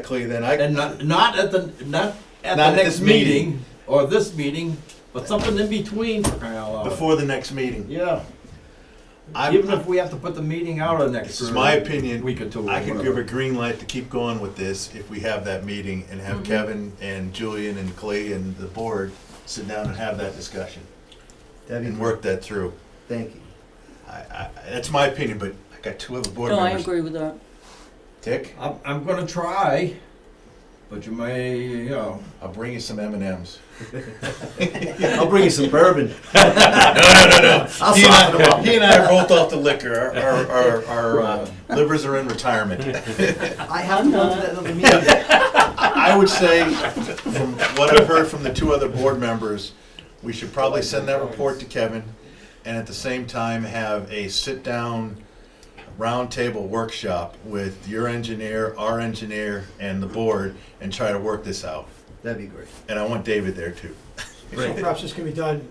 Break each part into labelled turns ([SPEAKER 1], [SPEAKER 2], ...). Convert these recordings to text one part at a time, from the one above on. [SPEAKER 1] Exactly, then I,
[SPEAKER 2] And not, not at the, not at
[SPEAKER 1] Not at
[SPEAKER 2] the next
[SPEAKER 1] this meeting.
[SPEAKER 2] meeting, or this meeting, but something in between for crying out loud.
[SPEAKER 1] before the next meeting.
[SPEAKER 2] Yeah,
[SPEAKER 1] I,
[SPEAKER 2] even if we have to put the meeting out on next.
[SPEAKER 1] this is my
[SPEAKER 2] uh,
[SPEAKER 1] opinion.
[SPEAKER 2] Week or two. or
[SPEAKER 1] I could give
[SPEAKER 2] whatever.
[SPEAKER 1] a green light to keep going with this if we have that meeting and have
[SPEAKER 3] Mhm.
[SPEAKER 1] Kevin and Julian and Clay and the board sit down and have that discussion
[SPEAKER 4] That'd
[SPEAKER 1] and
[SPEAKER 4] be,
[SPEAKER 1] work that through.
[SPEAKER 4] thank you.
[SPEAKER 1] I, I, that's my opinion, but I got two other board
[SPEAKER 3] No, I
[SPEAKER 1] members.
[SPEAKER 3] agree with that.
[SPEAKER 1] Dick,
[SPEAKER 2] I'm, I'm gonna try, but you may, you know,
[SPEAKER 1] I'll bring you some M and M's.
[SPEAKER 4] I'll bring you some bourbon. I'll
[SPEAKER 1] He and
[SPEAKER 4] soften them
[SPEAKER 1] I,
[SPEAKER 4] up.
[SPEAKER 1] he and I are both off the liquor. Our, our, our, our uh, livers are in retirement.
[SPEAKER 4] I have to go to that other meeting.
[SPEAKER 1] I would say, from what I've heard from the two other board members, we should probably send that report to Kevin, and at the same time, have a sit-down, roundtable workshop with your engineer, our engineer, and the board, and try to work this out.
[SPEAKER 4] That'd be great.
[SPEAKER 1] And I want David there too.
[SPEAKER 5] So perhaps this can be done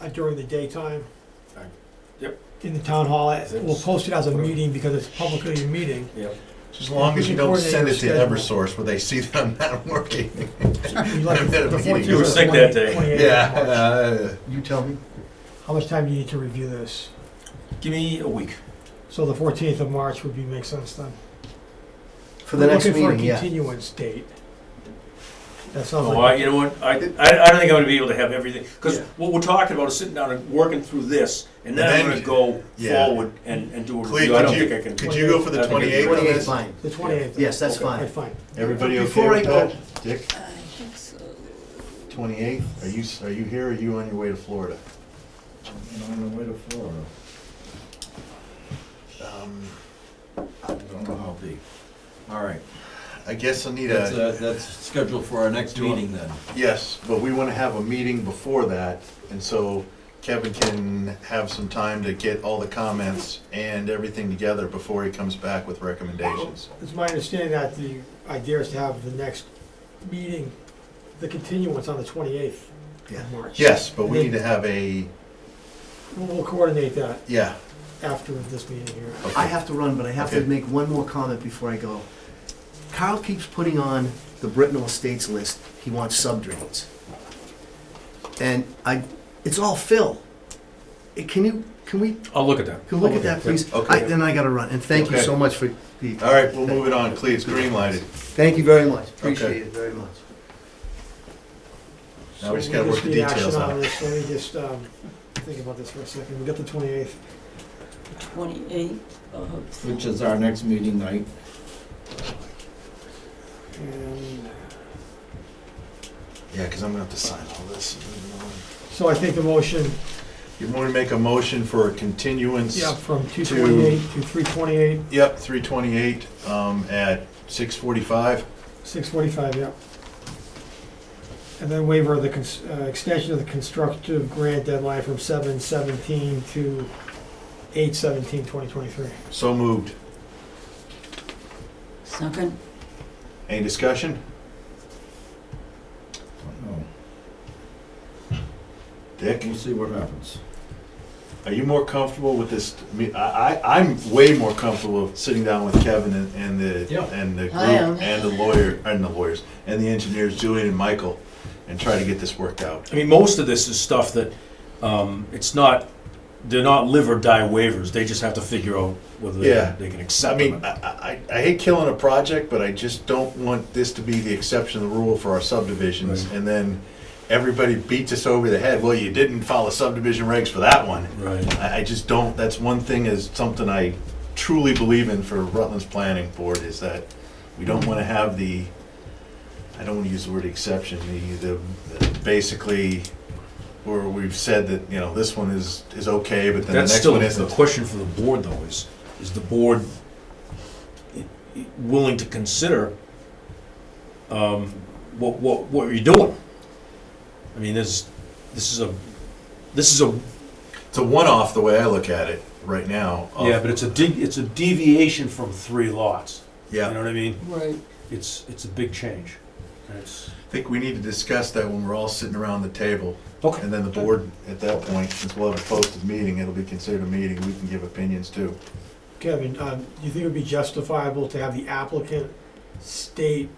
[SPEAKER 5] uh, during the daytime?
[SPEAKER 6] Right. Yep.
[SPEAKER 5] In the town hall,
[SPEAKER 6] Is it-
[SPEAKER 5] we'll post it as a meeting because it's publicly a meeting.
[SPEAKER 6] Yep.
[SPEAKER 1] As long as you don't send it to Eversource where they see that I'm not working. You
[SPEAKER 5] You
[SPEAKER 1] were
[SPEAKER 6] sick that day.
[SPEAKER 1] Yeah, uh, you tell me.
[SPEAKER 5] How much time do you need to review this?
[SPEAKER 6] Give me a week.
[SPEAKER 5] So the fourteenth of March would be, make sense then?
[SPEAKER 4] For the
[SPEAKER 5] We're
[SPEAKER 4] next meeting,
[SPEAKER 5] Looking for a
[SPEAKER 4] yeah.
[SPEAKER 5] continuance date. That sounds
[SPEAKER 6] Oh, I,
[SPEAKER 5] like,
[SPEAKER 6] you know what, I, I, I don't think I'm gonna be able to have everything, because
[SPEAKER 5] Yeah.
[SPEAKER 6] what we're talking about is sitting down and working through this, and then I'm
[SPEAKER 1] Then-
[SPEAKER 6] gonna go
[SPEAKER 1] yeah.
[SPEAKER 6] forward and, and do a
[SPEAKER 1] Cleve,
[SPEAKER 6] review, I
[SPEAKER 1] could
[SPEAKER 6] don't
[SPEAKER 1] you-
[SPEAKER 6] think I can.
[SPEAKER 1] Could you go for the 28th on
[SPEAKER 4] Twenty-eight,
[SPEAKER 1] this?
[SPEAKER 4] fine.
[SPEAKER 5] the twenty-eighth.
[SPEAKER 4] Yes, that's
[SPEAKER 5] Right,
[SPEAKER 4] fine.
[SPEAKER 5] fine.
[SPEAKER 1] Everybody okay
[SPEAKER 4] Before I
[SPEAKER 1] with that?
[SPEAKER 4] go-
[SPEAKER 1] Dick?
[SPEAKER 3] I think so.
[SPEAKER 1] Twenty-eighth, are you, are you here or are you on your way to Florida?
[SPEAKER 2] I'm on the way to Florida,
[SPEAKER 1] Um,
[SPEAKER 2] I don't know how deep. All right,
[SPEAKER 1] I guess I need
[SPEAKER 2] that's,
[SPEAKER 1] a,
[SPEAKER 2] uh, that's scheduled for our next
[SPEAKER 1] Do you want-
[SPEAKER 2] meeting then.
[SPEAKER 1] yes, but we wanna have a meeting before that, and so Kevin can have some time to get all the comments and everything together before he comes back with recommendations.
[SPEAKER 5] It's my understanding that the idea is to have the next meeting, the continuance on the twenty-eighth
[SPEAKER 4] Yeah.
[SPEAKER 5] of March.
[SPEAKER 1] Yes, but we need to have a,
[SPEAKER 5] We'll- We'll coordinate that
[SPEAKER 1] yeah,
[SPEAKER 5] after this meeting here.
[SPEAKER 4] I
[SPEAKER 1] okay,
[SPEAKER 4] have to run, but I have to
[SPEAKER 1] Okay.
[SPEAKER 4] make one more comment before I go. Carl keeps putting on the Brittenell Estates list, he wants subdrains. And I, it's all fill. Eh, Can you, can we,
[SPEAKER 6] I'll look at that.
[SPEAKER 4] can we look at that, please?
[SPEAKER 1] Okay.
[SPEAKER 4] I- Then I gotta run, and thank you
[SPEAKER 1] Okay.
[SPEAKER 4] so much for, the-
[SPEAKER 1] all right, we'll move it on, Clea, it's green lighted.
[SPEAKER 4] thank you very much,
[SPEAKER 1] Okay.
[SPEAKER 4] appreciate it very much.
[SPEAKER 1] Now we just
[SPEAKER 5] So
[SPEAKER 1] gotta work the
[SPEAKER 5] need action
[SPEAKER 1] details
[SPEAKER 5] on
[SPEAKER 1] out.
[SPEAKER 5] this. Let me just, um, think about this for a second. We got the twenty-eighth.
[SPEAKER 3] Twenty-eighth of.
[SPEAKER 2] Which is our next meeting night.
[SPEAKER 5] And
[SPEAKER 1] Yeah, cause I'm gonna have to sign all this.
[SPEAKER 5] so I think the motion,
[SPEAKER 1] You wanna make a motion for a continuance?
[SPEAKER 5] yeah, from two twenty-eight to three twenty-eight,
[SPEAKER 1] Yep, three twenty-eight, um, at six forty-five.
[SPEAKER 5] six forty-five, yeah. And then waiver of the, cons- uh, extension of the constructive grant deadline from seven seventeen to eight seventeen twenty twenty-three.
[SPEAKER 1] So moved.
[SPEAKER 3] Second,
[SPEAKER 1] Any discussion?
[SPEAKER 2] Don't know.
[SPEAKER 1] Dick,
[SPEAKER 2] We'll see what happens.
[SPEAKER 1] are you more comfortable with this? I mean, I, I, I'm way more comfortable with sitting down with Kevin and, and the,
[SPEAKER 2] Yeah.
[SPEAKER 1] and the
[SPEAKER 3] I am.
[SPEAKER 1] group, and the lawyer, and the lawyers, and the engineers, Julian and Michael, and try to get this worked out.
[SPEAKER 6] I mean, most of this is stuff that, um, it's not, they're not live or die waivers, they just have to figure out whether
[SPEAKER 1] Yeah.
[SPEAKER 6] they they can
[SPEAKER 1] I
[SPEAKER 6] accept them. or
[SPEAKER 1] mean,
[SPEAKER 6] not.
[SPEAKER 1] I, I, I hate killing a project, but I just don't want this to be the exception to the rule for our subdivisions,
[SPEAKER 6] Right.
[SPEAKER 1] and then everybody beats us over the head, well, you didn't follow subdivision regs for that one.
[SPEAKER 6] Right,
[SPEAKER 1] I, I just don't, that's one thing is something I truly believe in for Rutland's planning board is that we don't wanna have the, I don't wanna use the word exception, the, the, basically, where we've said that, you know, this one is, is okay, but then the
[SPEAKER 6] that's
[SPEAKER 1] next
[SPEAKER 6] still,
[SPEAKER 1] one isn't.
[SPEAKER 6] the question for the board though is, is the board i- i- willing to consider, um, what, what, what you're doing? I mean, there's, this is a, this is a
[SPEAKER 1] It's a one-off, the way I look at it right now. of-
[SPEAKER 6] Yeah, but it's a de- it's a deviation from three lots. You know
[SPEAKER 1] Yeah,
[SPEAKER 6] what I mean?
[SPEAKER 3] right.
[SPEAKER 6] It's it's a big change. And It's
[SPEAKER 1] I think we need to discuss that when we're all sitting around the table,
[SPEAKER 6] okay.
[SPEAKER 1] and then the board, at that point, since we'll have a posted meeting, it'll be considered a meeting, we can give opinions too.
[SPEAKER 5] uh, Kevin, um, do you think it would be justifiable to have the applicant state